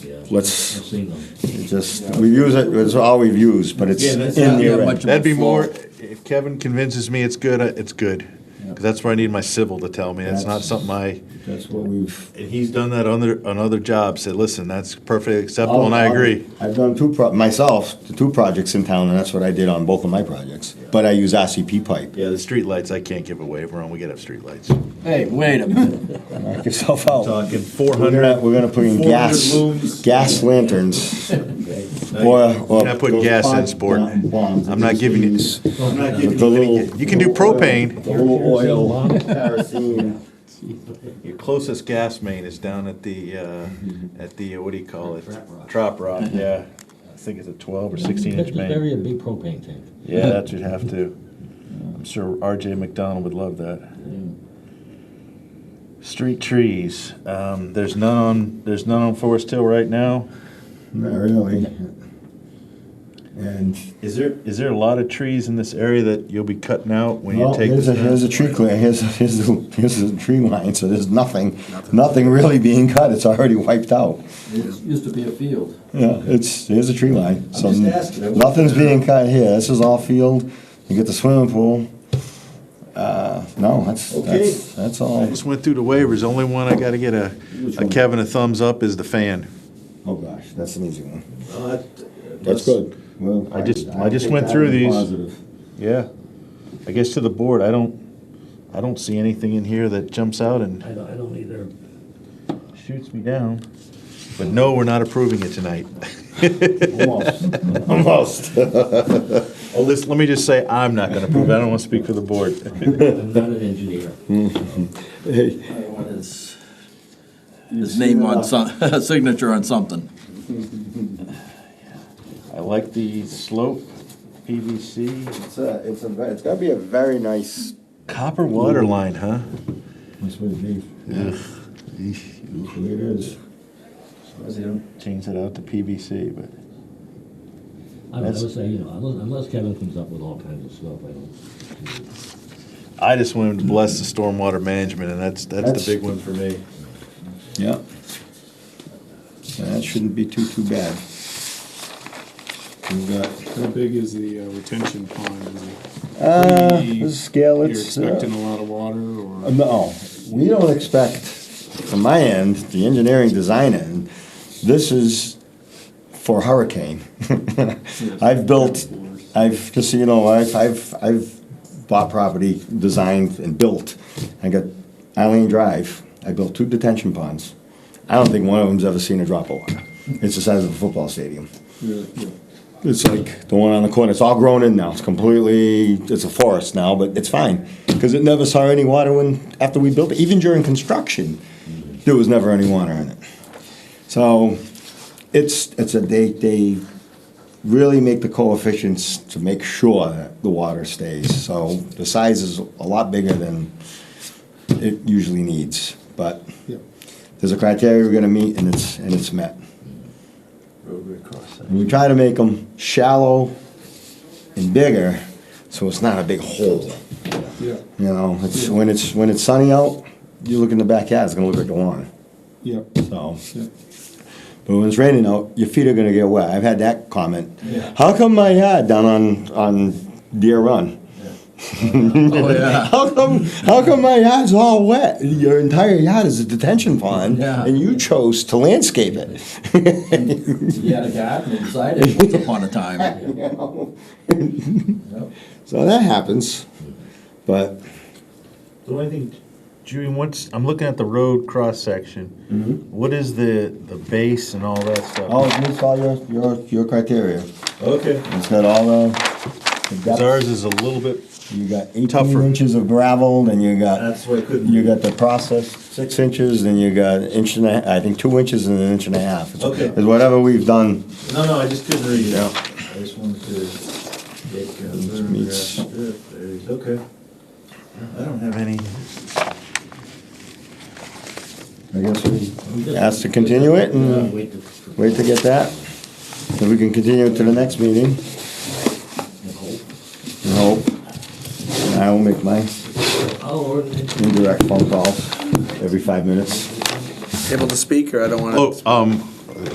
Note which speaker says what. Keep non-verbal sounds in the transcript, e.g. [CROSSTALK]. Speaker 1: let's
Speaker 2: seen them.
Speaker 1: just, we use it, it's all we've used, but it's
Speaker 2: Yeah, that's
Speaker 1: in
Speaker 2: not that
Speaker 1: there.
Speaker 2: much
Speaker 3: That'd be more, if Kevin convinces me it's good, I- it's good. 'Cause that's where I need my civil to tell me, it's not
Speaker 1: That's-
Speaker 3: something I,
Speaker 1: That's what we've.
Speaker 3: and he's done that on other, on other jobs, said, listen, that's perfectly acceptable, and I agree.
Speaker 1: I've done two, pro- myself, the two projects in town, and that's what I did on both of my projects. But I use RCP pipe.
Speaker 3: Yeah, the streetlights, I can't give a waiver on, we gotta have streetlights.
Speaker 2: Hey, wait a minute.
Speaker 1: Knock yourself out.
Speaker 3: Talking four
Speaker 1: We're
Speaker 3: hundred,
Speaker 1: gonna, we're gonna put in
Speaker 3: 400
Speaker 1: gas,
Speaker 3: looms.
Speaker 1: gas lanterns. Or, or.
Speaker 3: You're not putting gas in, sport. I'm not giving you-
Speaker 1: I'm not
Speaker 3: giving you any- you can do propane.
Speaker 1: The little oil, kerosene.
Speaker 3: your closest gas main is down at the, uh, at the, what do you call it? Trap rock, Mm-hmm. yeah. I think it's a twelve or sixteen inch main.
Speaker 4: Bury a big propane tank.
Speaker 3: Yeah, that you'd have to. I'm sure RJ McDonald would love that. Street trees, um, there's none on, there's none on Forest Hill right now.
Speaker 1: Not really. And,
Speaker 3: Is there, is there a lot of trees in this area that you'll be cutting out when you
Speaker 1: well,
Speaker 3: take
Speaker 1: here's
Speaker 3: this?
Speaker 1: a, here's a
Speaker 3: down?
Speaker 1: tree clear, here's, here's, the- here's the tree line, so there's nothing, nothing really being cut, it's already wiped out.
Speaker 2: It used to be a field.
Speaker 1: Yeah, it's, here's a tree line, so
Speaker 2: just asking, I wasn't-
Speaker 1: nothing's being cut here, this is all field, you get the swimming pool. Uh, no, that's, that's, that's
Speaker 3: I
Speaker 1: all.
Speaker 3: just went through the waivers, only one I gotta get a,
Speaker 1: Which
Speaker 3: a
Speaker 1: one?
Speaker 3: Kevin a thumbs up is the fan.
Speaker 1: Oh, gosh, that's an easy one.
Speaker 2: That's
Speaker 1: Well,
Speaker 3: I just- I just went through these. [LAUGHS] Yeah. I guess to the board, I don't, I don't see anything in here that jumps out and
Speaker 4: I don't, I don't either.
Speaker 3: shoots me down. But no, we're not approving it tonight.
Speaker 1: [LAUGHS]
Speaker 3: [LAUGHS]
Speaker 1: Almost.
Speaker 3: Well, this, let me just say, I'm not gonna approve. it. I don't wanna speak for the board. [LAUGHS]
Speaker 4: I'm not an engineer.
Speaker 2: His his name on some, signature on something.
Speaker 3: I like the slope PVC.
Speaker 1: It's a, it's a, ve- it's gotta be a very nice.
Speaker 3: Copper water line, huh?
Speaker 1: Nice way to be. It is.
Speaker 3: Change it out to PVC, but.
Speaker 4: I would I
Speaker 3: That's-
Speaker 4: would say, you know, unless, unless Kevin comes up with all kinds of stuff, I don't.
Speaker 3: I just wanted to bless the stormwater management and that's, that's
Speaker 1: That's-
Speaker 3: the big one for me.
Speaker 1: Yeah. That shouldn't be too, too bad. We've got,
Speaker 5: How big is the uh, retention pond? Is it
Speaker 1: uh,
Speaker 5: pretty-
Speaker 1: the scale,
Speaker 5: You're
Speaker 1: it's, uh,
Speaker 5: expecting a lot of water or?
Speaker 1: no, we don't expect, from my end, the engineering design end, this is for hurricane. [LAUGHS] I've built, I've, just so you know, I've, I've, I've bought property, designed and built. I got Eileen Drive, I built two detention ponds. I don't think one of them's ever seen a drop of water. It's the size of a football stadium. It's like the one on the corner, it's all grown in now, it's completely, it's a forest now, but it's fine. Because it never saw any water when, after we built it, even during construction, there was never any water in it. So, it's, it's a, they, they really make the coefficients to make sure that the water stays. So the size is a lot bigger than it usually needs, but there's a criteria we're gonna meet and it's, and it's met. And we try to make them shallow and bigger, so it's not a big hole.
Speaker 5: Yeah,
Speaker 1: You know, it's, when it's, when it's sunny out, you look in the backyard, it's gonna look like a lawn,
Speaker 5: yeah,
Speaker 1: so.
Speaker 5: yeah.
Speaker 1: But when it's raining out, your feet are gonna get wet. I've had that comment. How come my yard down on on Deer Run?
Speaker 2: Oh, yeah.
Speaker 1: [LAUGHS] How come how come my yard's all wet? Your entire yard is a detention pond,
Speaker 2: Yeah.
Speaker 1: and you chose to landscape
Speaker 2: [LAUGHS]
Speaker 1: it.
Speaker 2: He had a garden inside it once upon a time.
Speaker 1: So that happens. But
Speaker 3: So I think, Judy, what's, I'm looking at the road cross-section. What is the, the base and all that stuff?
Speaker 1: oh, it meets all your your your criteria.
Speaker 3: okay.
Speaker 1: It's got all the. the depth.
Speaker 3: Ours is a little bit,
Speaker 1: You got 18
Speaker 3: Tougher.
Speaker 1: inches of gravel, then you got
Speaker 3: why I couldn't.
Speaker 1: You got the process, six inches, then you got an inch and a, I think two inches and an inch and a half. It's-
Speaker 3: Okay.
Speaker 1: It's whatever we've done.
Speaker 3: No, no, I just couldn't read it.
Speaker 1: Yeah.
Speaker 3: I just wanted to get
Speaker 1: Meets- meets.
Speaker 3: Okay. I don't have any.
Speaker 1: I guess we asked to continue it and
Speaker 4: Wait to-
Speaker 1: wait to get that. If we can continue it to the next meeting. And hope. And I will make my
Speaker 4: I'll ordinate.
Speaker 1: indirect phone calls every five minutes.
Speaker 6: Able to speak, or I don't want to?
Speaker 3: Oh, um,